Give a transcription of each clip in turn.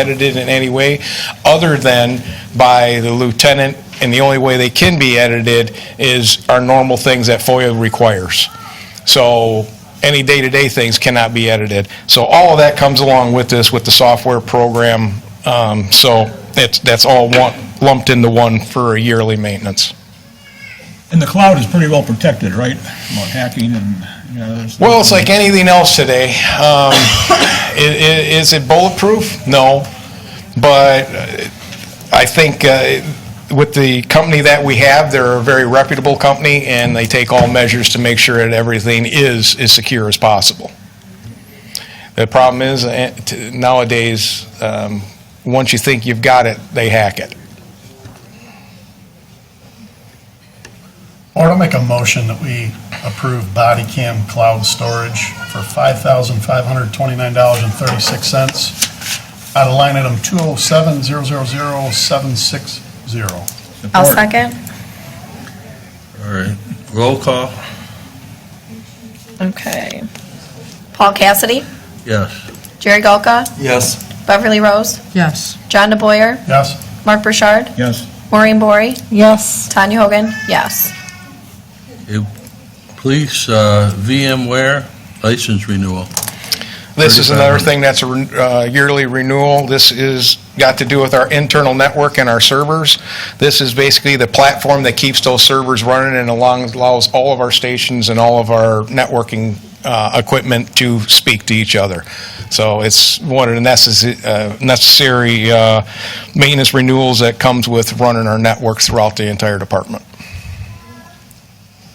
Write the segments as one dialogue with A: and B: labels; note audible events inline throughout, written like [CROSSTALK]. A: edited in any way other than by the lieutenant, and the only way they can be edited is our normal things that FOIA requires. So any day-to-day things cannot be edited. So all of that comes along with this, with the software program. Um, So it's, that's all one- lumped into one for a yearly maintenance.
B: And the cloud is pretty well protected, right? About hacking and, you know, there's.
A: Well, it's like anything else today. Um, [COUGHS] i- i- Is it bulletproof? No. But uh, I think uh, with the company that we have, they're a very reputable company, and they take all measures to make sure that everything is as secure as possible. The problem is eh, t- nowadays, um, once you think you've got it, they hack it.
C: Or I'll make a motion that we approve body cam cloud storage for $5,529.36 out of line item 207-000-760.
D: I'll
B: support.
D: second.
E: All right, roll call,
D: Okay. Paul Cassidy,
E: yes.
D: Jerry Golka,
E: Yes.
D: Beverly Rose,
F: Yes.
D: John DeBoyer,
C: Yes?
D: Mark Burchard,
B: Yes,
D: Maureen Bory,
F: Yes.
D: Tanya Hogan, yes.
E: Police, uh, VMware license renewal.
A: This is another thing that's a ren- uh, yearly renewal. This is, got to do with our internal network and our servers. This is basically the platform that keeps those servers running and along- allows all of our stations and all of our networking uh, equipment to speak to each other. So it's one of the necess- uh, necessary uh, maintenance renewals that comes with running our network throughout the entire department.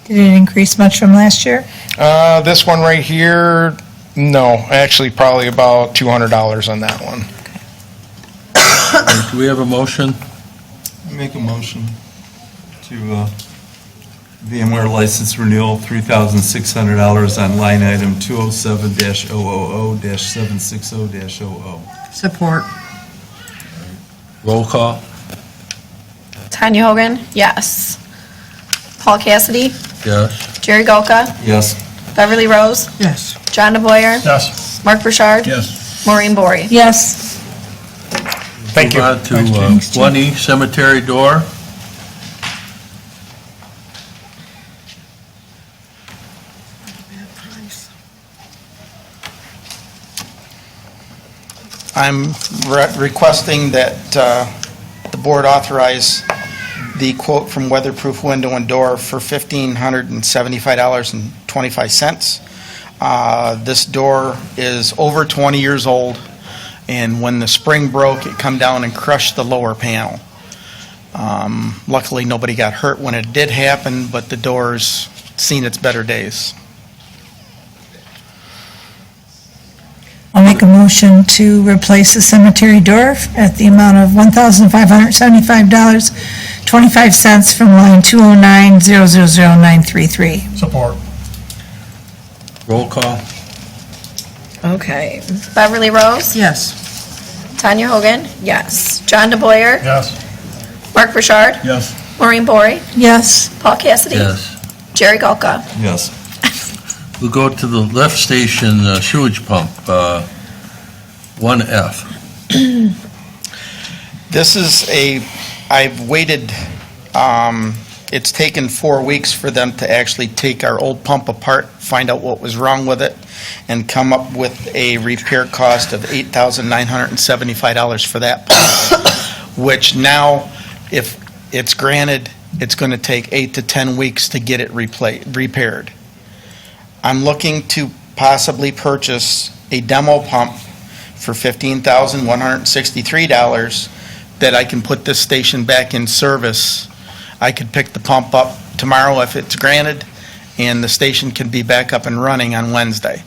F: Did it increase much from last year?
A: Uh, This one right here, no, actually probably about $200 on that one.
E: Do we have a motion?
G: Make a motion to uh, VMware license renewal, $3,600 on line item 207-000-760-00.
F: Support.
E: Roll call,
D: Tanya Hogan, yes. Paul Cassidy,
E: yes.
D: Jerry Golka,
G: Yes,
D: Beverly Rose,
F: Yes.
D: John DeBoyer,
C: Yes?
D: Mark Burchard,
B: yes.
D: Maureen Bory.
F: Yes.
A: Thank you.
E: Move on to
F: Thanks,
E: uh,
F: James.
E: 1E cemetery door.
H: I'm re- requesting that uh, the board authorize the quote from Weatherproof Window and Door for $1,575.25. Uh, This door is over 20 years old, and when the spring broke, it come down and crushed the lower panel. Um, Luckily, nobody got hurt when it did happen, but the door's seen its better days.
F: I'll make a motion to replace the cemetery door at the amount of $1,575.25 from line 209-000933.
C: Support.
E: Roll call,
D: Okay. Beverly Rose,
F: Yes.
D: Tanya Hogan, yes. John DeBoyer,
C: Yes?
D: Mark Burchard,
B: Yes,
D: Maureen Bory,
F: Yes.
D: Paul Cassidy,
E: yes.
D: Jerry Golka.
G: yes.
E: We'll go to the left station uh, sewage pump, uh, 1F.
H: This is a, I've waited, um, it's taken four weeks for them to actually take our old pump apart, find out what was wrong with it, and come up with a repair cost of $8,975 for that pump, [COUGHS] which now, if it's granted, it's going to take eight to 10 weeks to get it repla- repaired. I'm looking to possibly purchase a demo pump for $15,163 that I can put this station back in service. I could pick the pump up tomorrow if it's granted, and the station can be back up and running on Wednesday.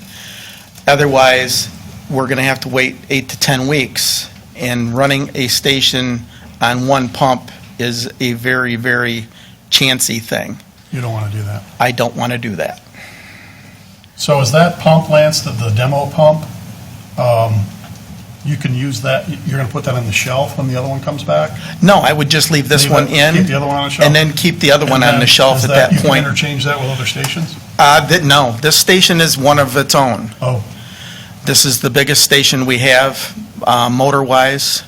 H: Otherwise, we're going to have to wait eight to 10 weeks, and running a station on one pump is a very, very chancy thing.
C: You don't want to do that.
H: I don't want to do that.
C: So is that pump, Lance, the- the demo pump? um, You can use that, you're going to put that on the shelf when the other one comes back?
H: No, I would just leave this
C: Leave
H: one
C: it-
H: in.
C: keep the other one on the shelf?
H: And then keep the other one on
C: And
H: the
C: then
H: shelf
C: is
H: at that
C: You can
H: point.
C: interchange that with other stations?
H: Uh, th- no, this station is one of its own.
C: Oh.
H: This is the biggest station we have. uh, motor-wise.